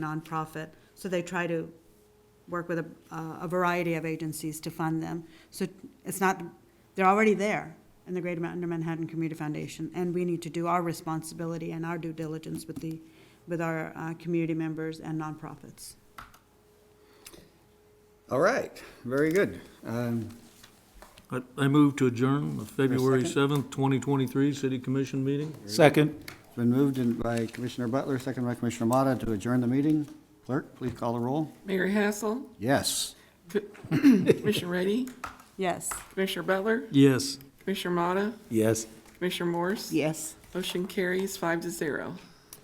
nonprofit, so they try to work with a, a variety of agencies to fund them. So it's not, they're already there in the Greater Manhattan Manhattan Community Foundation, and we need to do our responsibility and our due diligence with the, with our, uh, community members and nonprofits. All right, very good. Um, I, I move to adjourn the February second? seventh, twenty twenty-three city commission meeting. Second. It's been moved in by Commissioner Butler, second by Commissioner Motta to adjourn the meeting. Clerk, please call the roll. Mayor Hassel, Yes. Commissioner Ready, Yes. Commissioner Butler, Yes. Commissioner Motta, Yes. Commissioner Morse. Yes. Motion carries five to zero.